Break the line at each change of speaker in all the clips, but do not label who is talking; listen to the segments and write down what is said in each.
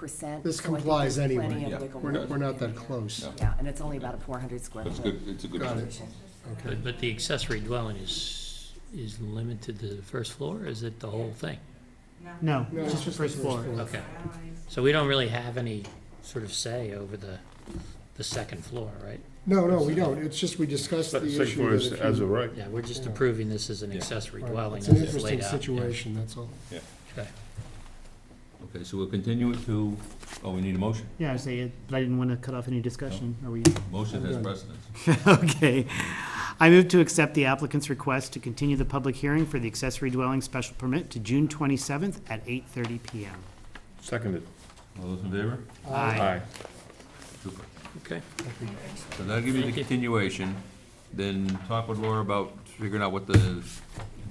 percent.
This
so I think
complies
there's
anyway.
plenty of
Yeah.
wiggle
We're not,
room
we're not
in
that
there.
close.
Yeah.
Yeah, and it's only about a four hundred square
That's
foot.
good, it's a good.
Got it.
position.
Okay.
But, but the accessory dwelling is, is limited to the first floor, or is it the whole thing?
No,
No,
just the first floor.
Okay, so we don't really have any sort of say over the, the second floor, right?
No, no, we don't. It's just we discussed the
Second floor
issue
is
that if
as a
you.
right.
Yeah, we're just
Yeah.
approving this as an
Yeah.
accessory
Right.
dwelling
It's
as
an
it's laid
interesting
out.
situation, that's all.
Okay, so we'll continue it to, oh, we need a motion.
Yeah, I say, it, but I didn't want to cut off any discussion. Are we?
Motion has
I'm good.
precedence.
Oh. Okay. I move to accept the applicant's request to continue the public hearing for the accessory dwelling special permit to June twenty-seventh at eight thirty PM.
Seconded.
All those in favor?
Aye.
Super.
Okay,
So that'll give you the
Thank you.
continuation, then talk with Laura about figuring out what the,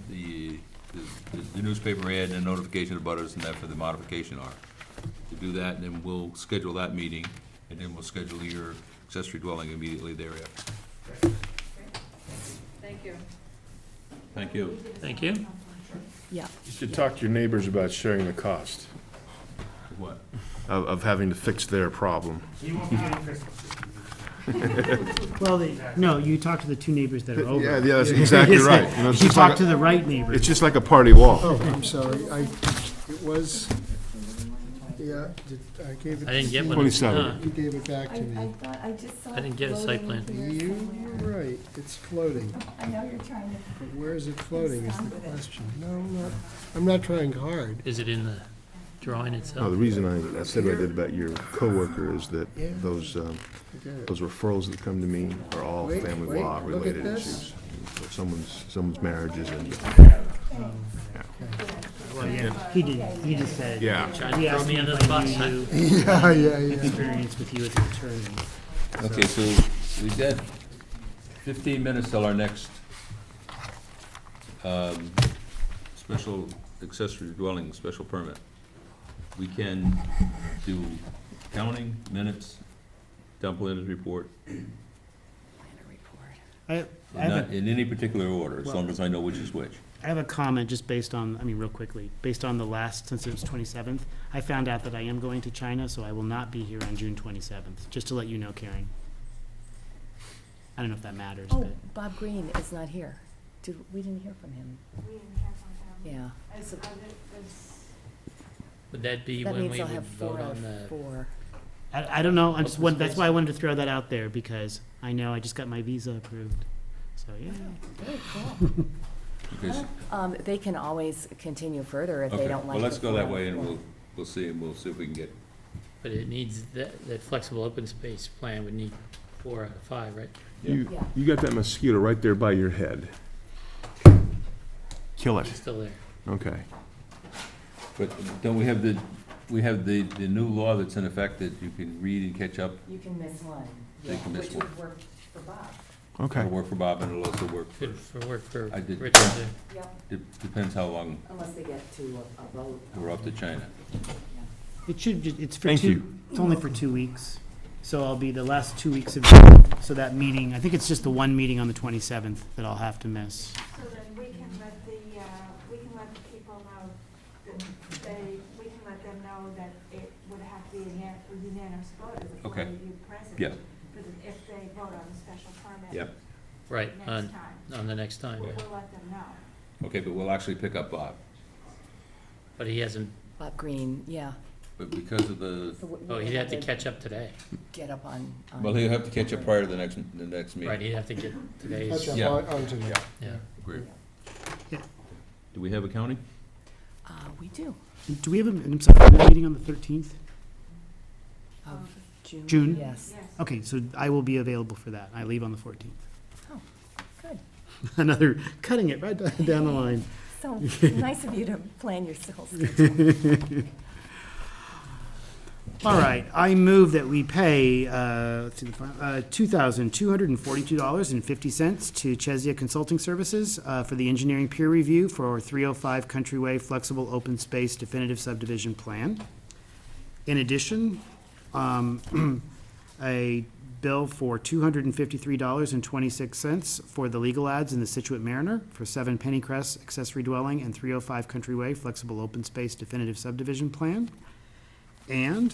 the, the- the newspaper ad and notification of butters and that for the modification are. To do that, and then we'll schedule that meeting, and then we'll schedule your accessory dwelling immediately thereafter. Thank you. Thank you.
thank you.
Yeah.
You should talk to your neighbors about sharing the cost
What?
of, of having to fix their problem.
Well, they- no, you talk to the two neighbors that are over.
Yeah, yeah, that's exactly
Yes,
right. You know, it's
You
just like
talk to
a-
the right neighbor.
It's just like a party wall.
Oh, I'm sorry, I, it was, yeah, did- I gave it.
I didn't
to
get
you.
one.
27.
You gave it back
I,
to
I
me.
thought, I just saw.
I didn't get a site
floating here
plan.
You
somewhere.
were right, it's floating.
I know you're trying to,
But where is it floating is the
Stop with it.
question. No, I'm not, I'm not trying hard.
Is it in the drawing
No, the
itself?
reason I, I said what I did about your coworker is that
Yeah.
those, um,
I get it.
those referrals that come to me are all
Wait,
family
wait,
law
look at
related
this.
issues. So Someone's, someone's marriages and,
Well, yeah, He did, he just said.
yeah.
Trying
He
to throw
asked
me
me
under
if
the
I
bus, huh?
knew
Yeah, yeah, yeah.
experience with you as an attorney.
Okay, so we got fifteen minutes till our next um, special accessory dwelling, special permit. We can do counting, minutes, town planners report,
Planner report.
I, I have a
not in any particular order, as long as I know which is which.
I have a comment just based on, I mean, real quickly, based on the last, since it was twenty-seventh, I found out that I am going to China, so I will not be here on June twenty-seventh, just to let you know, Karen. I don't know if that matters,
Oh,
but,
Bob Green is not here. Did, we didn't hear from him. Yeah. So
Would that be
That
when
means
we
I'll
would
have four
vote
out
on
of
the,
four.
I, I don't know, I just,
Open
want- that's
space.
why I wanted to throw that out there, because I know I just got my visa approved, so, yeah.
Very cool.
Okay, so-
Um, they can always continue further if they
okay,
don't like.
Well, let's
the
go that
four.
way and we'll, we'll see, and we'll see if we can get,
but it needs, that, that flexible open space plan would need four out of five, right?
You,
Yeah.
you got that mosquito right there by your head. Kill it.
It's still there.
Okay.
but don't we have the, we have the, the new law that's in effect that you can read and catch up?
You can miss one.
They
yeah,
can miss
Which would work for Bob.
Okay.
It'll work for Bob and it'll also work for
Good for work for
I did.
Richard there.
Yep,
Dep- Depends how long
unless they get to a- a vote.
we're off to China.
It should, ju- it's for
Thank
two,
you.
it's only for two weeks, so I'll be the last two weeks of, so that meeting, I think it's just the one meeting on the twenty-seventh that I'll have to miss.
So then we can let the, uh, we can let the people know, that they, we can let them know that it would have to be a unan- a unanimous vote of the four
Okay.
of you present.
Yeah.
For the- If they vote on the special permit.
Yep.
Right, Uh,
Next
on,
time,
on the next time,
we'll
yeah.
we'll let them know.
Okay, but we'll actually pick up Bob.
But he hasn't,
Bob Green, yeah.
But because of the,
So we-
oh,
we
he'd have to catch up today.
Get up on. on-
well, he'll have to catch up prior to the next, the next
Right,
meeting.
he'd have to get
That's
today's,
up
Yeah.
on- onto the-
yeah.
Great.
Yeah.
Do we have a county?
Uh, we do,
Do we have a, I'm sorry, do we have a meeting on the thirteenth?
of June.
June?
Yes,
Okay, so I will be available for that. I leave on the fourteenth.
Oh, good.
Another, cutting it right down the line.
So nice of you to plan yourselves.
All right, I move that we pay, uh, to the, fin- uh, two thousand two hundred and forty-two dollars and fifty cents to Chesia Consulting Services, uh, for the engineering peer review for three oh five Countryway Flexible Open Space Definitive Subdivision Plan. In addition, um, a bill for two hundred and fifty-three dollars and twenty-six cents for the legal ads in the Situate Mariner for seven Penny Crest accessory dwelling and three oh five Country Way flexible open space definitive subdivision plan. And